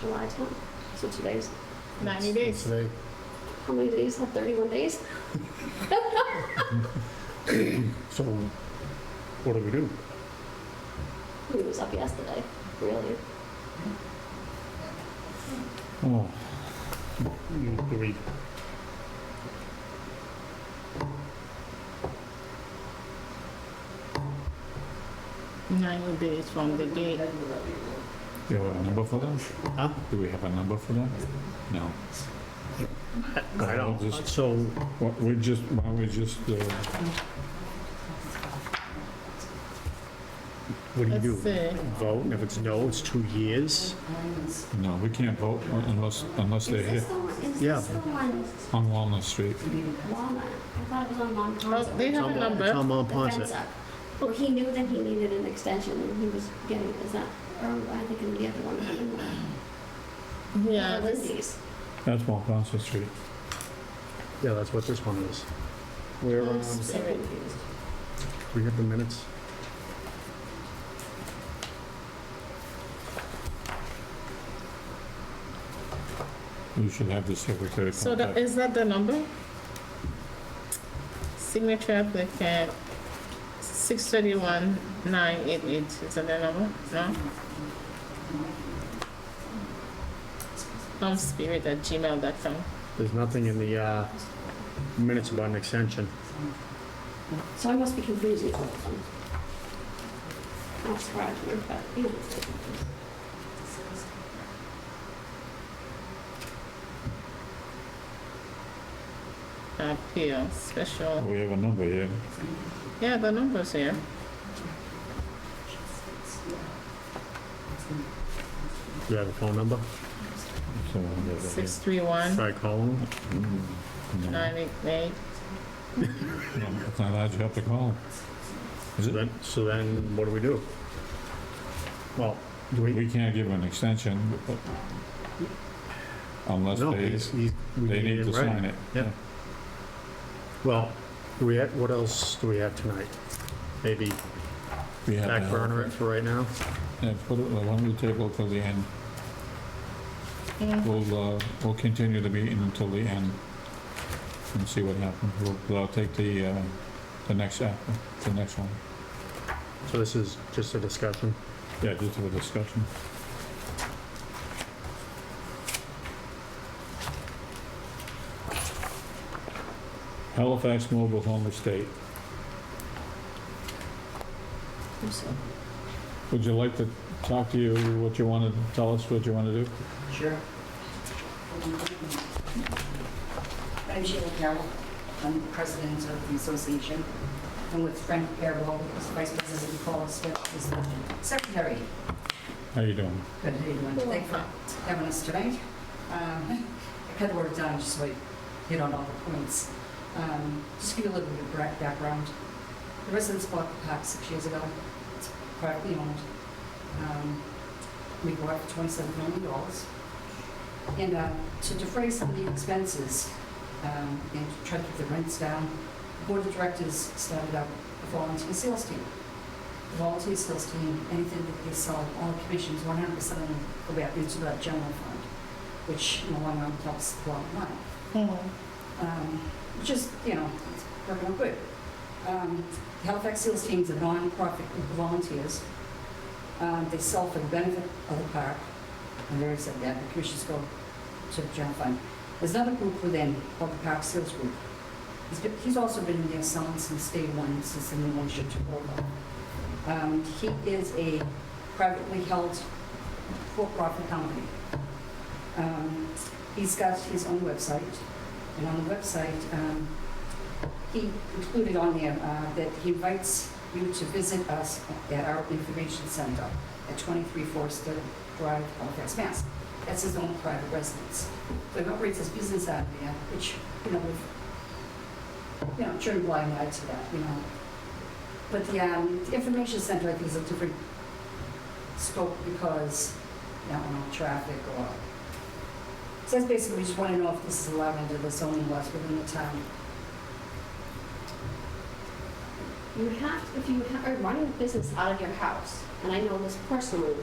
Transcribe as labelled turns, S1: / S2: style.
S1: July 10th. So today's,
S2: 90 days.
S3: Today,
S1: how many days? Not 31 days?
S3: so what do we do?
S1: It was up yesterday, really.
S4: Oh.
S3: You- Do we,
S2: Ninety days from the date.
S4: Do you have a number for them?
S3: huh?
S4: Do we have a number for them? No.
S3: I don't,
S4: Just-
S3: so
S4: Why- We just, why don't we just, uh,
S3: what do you
S2: Let's
S3: do?
S2: see.
S3: Vote, and if it's no, it's two years.
S4: no, we can't vote unless, unless they're
S1: Is
S4: here
S1: this the one, is
S3: Yeah.
S1: this the one,
S4: on Walnut Street.
S1: Walnut? I thought it was on Mont
S2: Oh,
S1: Ponce.
S2: they have a number.
S3: Tom
S1: The fence
S3: Ponset.
S1: up. Well, he knew that he needed an extension and he was getting, is that, or I think in the other one, I don't know.
S2: Yeah, this,
S1: Lindy's.
S4: That's Walnut Street.
S3: Yeah, that's what this one is. Where, um,
S1: I'm so confused.
S3: we have the minutes?
S4: We should have the secretary
S2: so that,
S4: contact.
S2: is that the number? Signature applicant, six thirty-one, nine eight eight, is that the number? No? Homespirit at gmail.com.
S3: There's nothing in the uh, minutes about an extension.
S1: So I must be confusing all of them. Not surprising, but, you know.
S2: Appeal, special,
S4: We have a number here.
S2: yeah, the number's here.
S3: Do you have a phone number?
S4: So, yeah, yeah,
S2: Six three one,
S3: Should I call them?
S4: yeah.
S2: nine eight eight.
S4: No, It's not allowed, you have to call. Is
S3: So
S4: it?
S3: then- So then, what do we do? Well, do we?
S4: We can't give an extension but- unless
S3: No,
S4: they,
S3: he's, he's. we
S4: they need
S3: it
S4: to
S3: right.
S4: sign it.
S3: Yeah. Well, do we, have- what else do we have tonight? Maybe
S4: We have
S3: back
S4: to-
S3: burner it for right now?
S4: Yeah, put it, why don't we table till the end?
S2: Mm.
S4: We'll, uh, we'll continue the meeting until the end and see what happens. We'll, we'll take the, uh, the next, app- the next one.
S3: So this is just a discussion.
S4: Yeah, just have a discussion. Halifax Mobile Home Estate.
S1: I'm so
S4: Would you like to talk to you, what you want to, tell us what you want to do?
S5: Sure. I'm Sheila Carroll. I'm the president of the association. And with Frank Carroll, who's vice president, and Paul Smith, who's the secretary.
S4: How you doing?
S5: Good evening. Thank you for having us tonight. Um, I cut the work down just so I hit on all the points. Um, Just give you a little bit of back- background. The residents bought the park six years ago. It's privately owned. Um, We bought it for twenty-seven million dollars. And uh, to defray some of the expenses um, and to try to keep the rents down, the board of directors started up a volunteer sales team. The volunteer sales team, anything that they sell, all commissions, 100% of them go back into the general fund, which in the long run helps the bottom line
S2: Mm.
S5: um, which is, you know, it's working out good. Um, Halifax Seals Team's a non-profit group of volunteers. Um, They sell for the benefit of the park. I've already said that, the commissions go to the general fund. There's another group within called the Park Seals Group. He's been- He's also been in there selling since day one, since the new ownership took over. Um, He is a privately held for-profit company. Um, He's got his own website. And on the website, um, he included on there uh, that he invites you to visit us at our information center at 23 Forster Drive, Halifax, Mass. That's his own private residence. So he operates his business out of there, which, you know, we've, you know, turned a blind eye to that, you know. But the um, the information center, I think, is a different scope because, you know, traffic or so that's basically, we just want to know if this is allowed under the zoning laws within the town.
S1: You have, if you ha- are running a business out of your house, and I know this personally